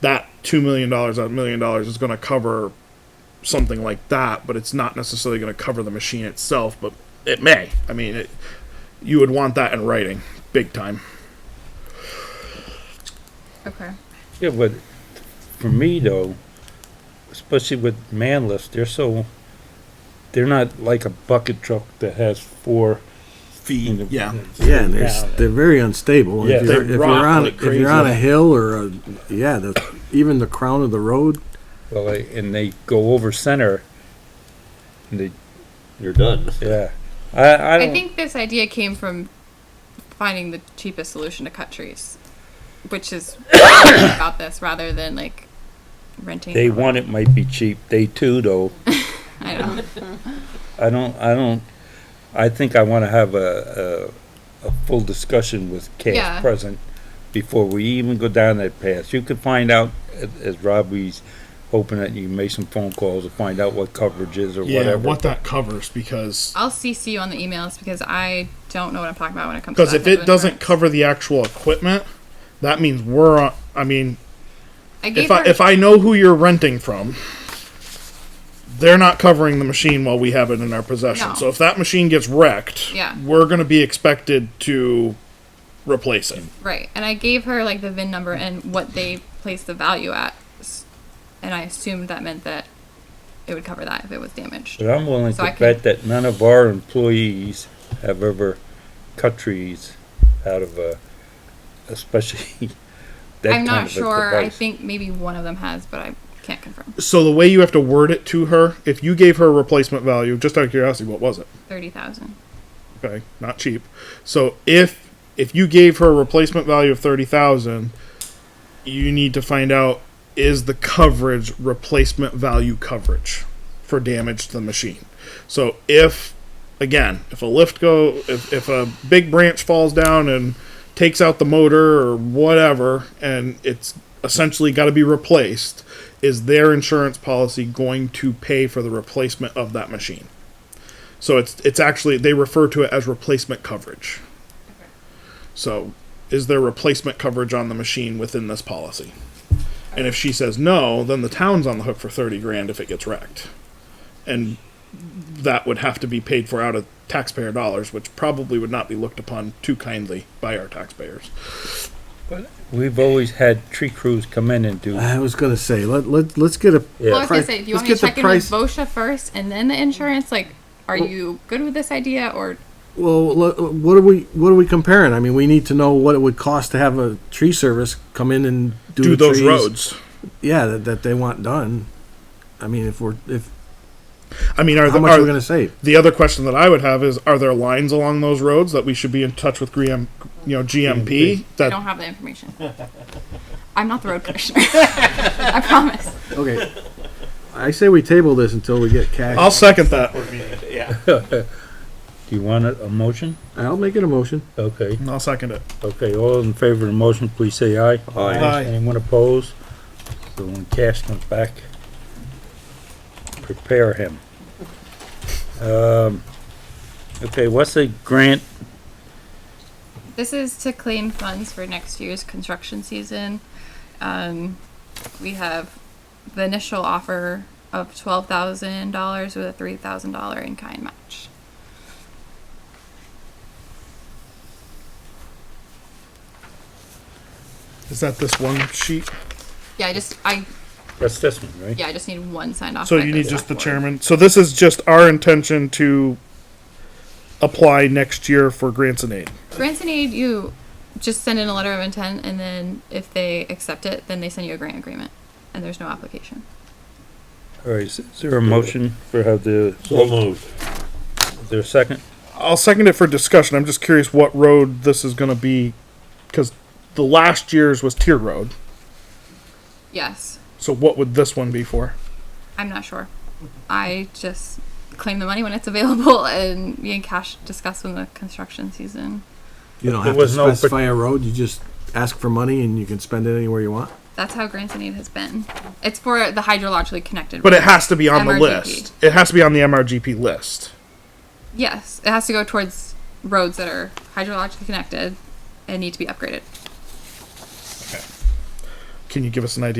that two million dollars, that million dollars is going to cover something like that, but it's not necessarily going to cover the machine itself. But it may. I mean, it, you would want that in writing, big time. Okay. Yeah, but for me though, especially with man lifts, they're so, they're not like a bucket truck that has four. Fee. Yeah. Yeah, and they're, Yeah. they're very unstable. Yeah, if they you're, if you're rock on like if you're on a crazy. hill or a yeah, the, even the crown of the road. Well, they- and they go over center and they, You're done. yeah. I, I I don't, think this idea came from finding the cheapest solution to cut trees, which is about this rather than like renting. they want it might be cheap. They too though. I know. I don't, I don't, I think I wanna have a, a, a full discussion with Yeah. Cass present before we even go down that path. You could find out, as, as Robbie's hoping that you make some phone calls to find out what coverage is or Yeah, whatever. what that covers because I'll CC you on the emails because I don't know what I'm talking about when it comes. to because that if type of it doesn't insurance. cover the actual equipment, that means we're. On, I mean, I gave if I her- if I know who you're renting from, they're not covering the machine while we have it in our possession. No. So if that machine gets wrecked, Yeah. we're going to be expected to replace it. Right, and I gave her like the VIN number and what they placed the value at, s- and I assumed that meant that it would cover that if it was damaged. But I'm willing So I to can- bet that none of our employees have ever cut trees out of a, especially that I'm kind not of a sure. I device. think maybe one of them has, but I can't confirm. So the way you have to word it to her, if you gave her a replacement value, just out of curiosity, what was it? Thirty thousand. Okay, not cheap. So if if you gave her a replacement value of thirty thousand, you need to find out is the coverage replacement value coverage for damage to the machine. So if again, if a lift go if, if a big branch falls down and takes out the motor or whatever and it's essentially got to be replaced, is their insurance policy going to pay for the replacement of that machine? So it's it's actually they refer to it as replacement coverage. So is there replacement coverage on the machine within this policy? And if she says no, then the town's on the hook for thirty grand if it gets wrecked. And that would have to be paid for out of taxpayer dollars, which probably would not be looked upon too kindly by our taxpayers. We've always had tree crews come in and do. I was gonna say let let let's get a Yeah. Well, I was gonna Price- say, do you want me to let's get the check in price- with VOSHA first and then the insurance? Like, are you good with this idea or well. let- what are we what are we comparing? I mean, we need to know what it would cost to have a tree service come in and do, Do the those trees, roads? Yeah, that, that they want done. I mean, if we're if I mean, are, how the, much are we're gonna save? the other question that I would have is: Are there lines along those roads that we should be in touch with GM, you know, GMP? I That don't have the information? I'm not the road commissioner. I promise. Okay, I say we table this until we get cash. I'll second that. Do you want a, a motion? I'll make it a motion. Okay. I'll second it. Okay, all in favor of the motion, please say aye. Aye. Anyone opposed? So when Cash comes back, prepare him. Um, okay, what's the grant? This is to claim funds for next year's construction season. Um, we have the initial offer of twelve thousand dollars with a three thousand dollar in kind match. Is that this one sheet? Yeah, I just I That's this one, right? yeah I just need one signed off. So by you need the just the select board. chairman. So this is just our intention to apply next year for grants and aid. Grants and aid, you just send in a letter of intent, and then if they accept it, then they send you a grant agreement, and there's no application. All right, is is there a motion for how the, So moved. is there a second? I'll second it for discussion. I'm just curious what road this is going to be because the last year's was tier road. Yes, So what would this one be for? I'm not sure. I just claim the money when it's available, and me and Cash discuss when the construction season. You don't There have to was no par- specify a road, you just ask for money and you can spend it anywhere you want. That's how grants and aid has been. It's for the hydrologically connected. But it has to be on the MRGP. list. It has to be on the MRGP list. yes, it has to go towards roads that are hydrologically connected and need to be upgraded. Can you give us an idea?